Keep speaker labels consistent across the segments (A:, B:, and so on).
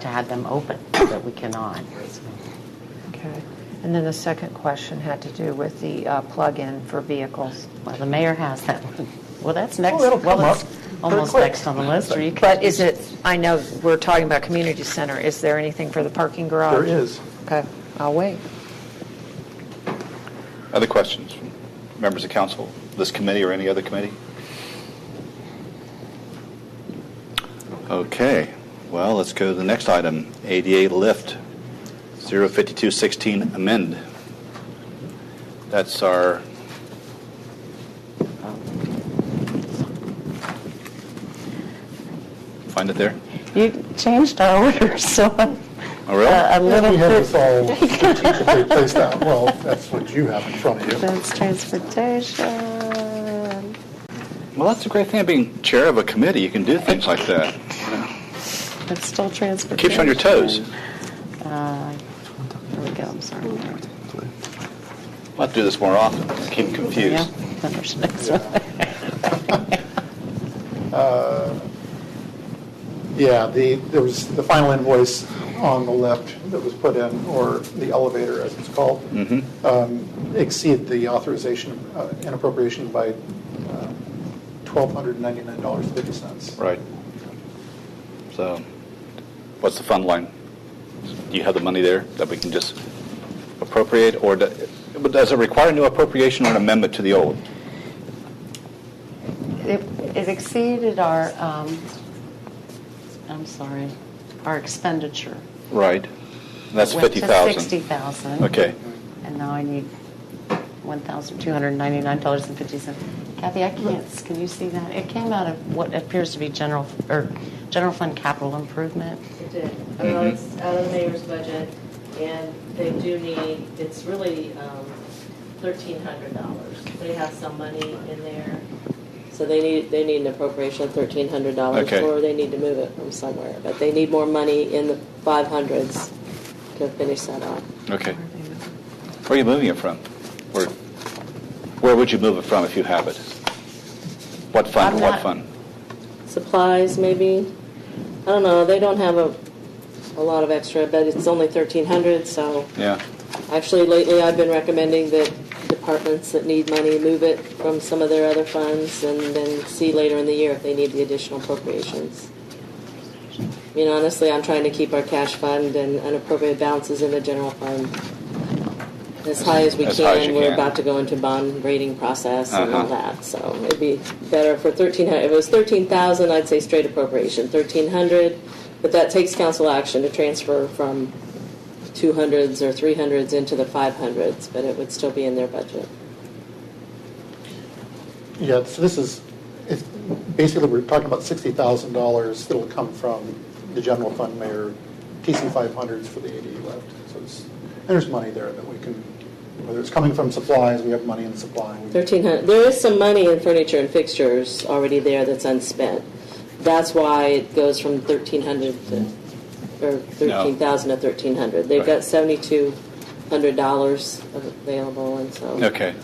A: to have them open, but we cannot.
B: Okay. And then the second question had to do with the uh, plug-in for vehicles.
A: Well, the mayor has that one. Well, that's next,
C: Oh, it'll come
A: well, it's
C: up pretty
A: almost
C: quick.
A: next on the list, or you can...
B: But is it, I know we're talking about community center, is there anything for the parking garage?
C: There is.
B: Okay, I'll wait.
D: Other questions from members of council, this committee or any other committee? Okay, well, let's go to the next item, ADA lift, 05216 amend. That's our, find it there?
A: You changed our order, so I'm
D: Oh, really?
A: a a
C: Yeah,
A: little
C: We have this
A: bit...
C: all strategically placed out. Well, that's what you have in front of you.
A: That's transportation.
D: Well, that's the great thing of being chair of a committee, you can do things like that.
A: It's still transportation.
D: Keeps you on your toes.
A: Uh, There we go, I'm sorry.
D: I'll have to do this more often, keep confused.
A: Yeah, then there's next one.
C: Yeah, the, there was the final invoice on the left that was put in, or the elevator as it's called, um, exceed the authorization uh, and appropriation by um, $1,299.50.
D: Right. So, what's the fund line? Do you have the money there that we can just appropriate, or do- but does it require new appropriation or an amendment to the old?
A: It it exceeded our, um, I'm sorry, our expenditure.
D: Right. That's
A: Went
D: fifty
A: to
D: thousand.
A: 60,000.
D: Okay.
A: And now I need $1,299.50. Kathy, I can't, can you see that? It came out of what appears to be general, or general fund capital improvement.
E: It did. Uh, It's out of the mayor's budget, and they do need, it's really um, $1,300. They have some money in there, so they need, they need an appropriation of
D: Okay.
E: $1,300, or they need to move it from somewhere. But they need more money in the 500s to finish that off.
D: Okay. Where are you moving it from? Where, where would you move it from if you have it? What fund,
A: I'm
D: what
A: not-
D: fund?
E: Supplies, maybe? I don't know, they don't have a, a lot of extra, but it's only 1,300, so...
D: Yeah.
E: Actually, lately, I've been recommending that departments that need money move it from some of their other funds and then see later in the year if they need the additional appropriations. I mean, honestly, I'm trying to keep our cash fund and unappropriated balances in the general fund as high as we
D: As high as
E: can.
D: you
E: We're
D: can.
E: about to go into bond rating process and all
D: Uh-huh.
E: that, so it'd be better for 1,300. If it was 13,000, I'd say straight appropriation, 1,300, but that takes council action to transfer from 200s or 300s into the 500s, but it would still be in their budget.
C: Yeah, so this is, it's, basically, we're talking about $60,000 that'll come from the general fund mayor, TC 500s for the AD left. So it's, there's money there that we can, whether it's coming from supplies, we have money in supply.
E: 1,300, there is some money in furniture and fixtures already there that's unspent. That's why it goes from 1,300 to, or 13,000 to 1,300. They've got
D: Right.
E: $7,200 available, and so.
D: Okay.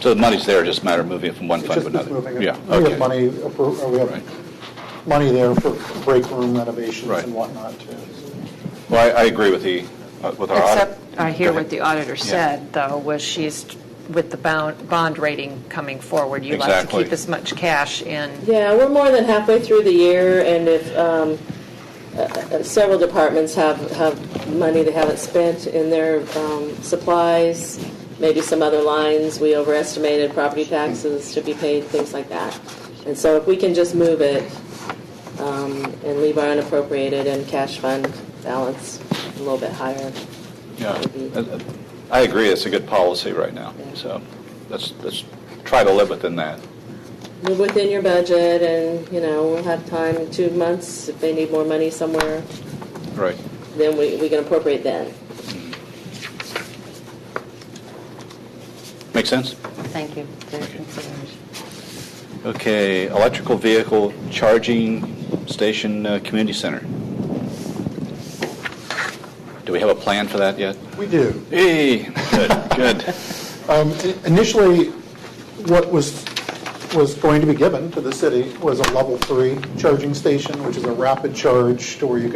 D: So the money's there, just a matter of moving it from one
C: It's
D: fund
C: just
D: to
C: it's
D: another?
C: moving it.
D: Yeah,
C: We
D: okay.
C: have money, appro- or we
D: Right.
C: have money there for break room renovations
D: Right.
C: and whatnot, too.
D: Well, I, I agree with the, uh, with our audit.
B: Except, I hear what the auditor
D: Yeah.
B: said, though, was she's, with the bond, bond rating coming forward, you like to
D: Exactly.
B: keep as much cash in.
E: Yeah, we're more than halfway through the year, and if um, uh, uh, several departments have, have money they haven't spent in their um, supplies, maybe some other lines, we overestimated property taxes to be paid, things like that. And so if we can just move it um, and leave our unappropriated and cash fund balance a little bit higher,
D: Yeah,
E: that would be-
D: Uh, I agree, it's a good policy right now,
E: Yeah.
D: so let's, let's try to live within that.
E: move within your budget, and, you know, we'll have time in two months if they need more money somewhere.
D: Right.
E: then we, we can appropriate then.
D: Make sense?
A: Thank you for your consideration.
D: Okay, electrical vehicle charging station, uh, community center. Do we have a plan for that yet?
C: We do.
D: Hey, good, good.
C: Um, Initially, what was was going to be given to the city was a level three charging station, which is a rapid charge to where you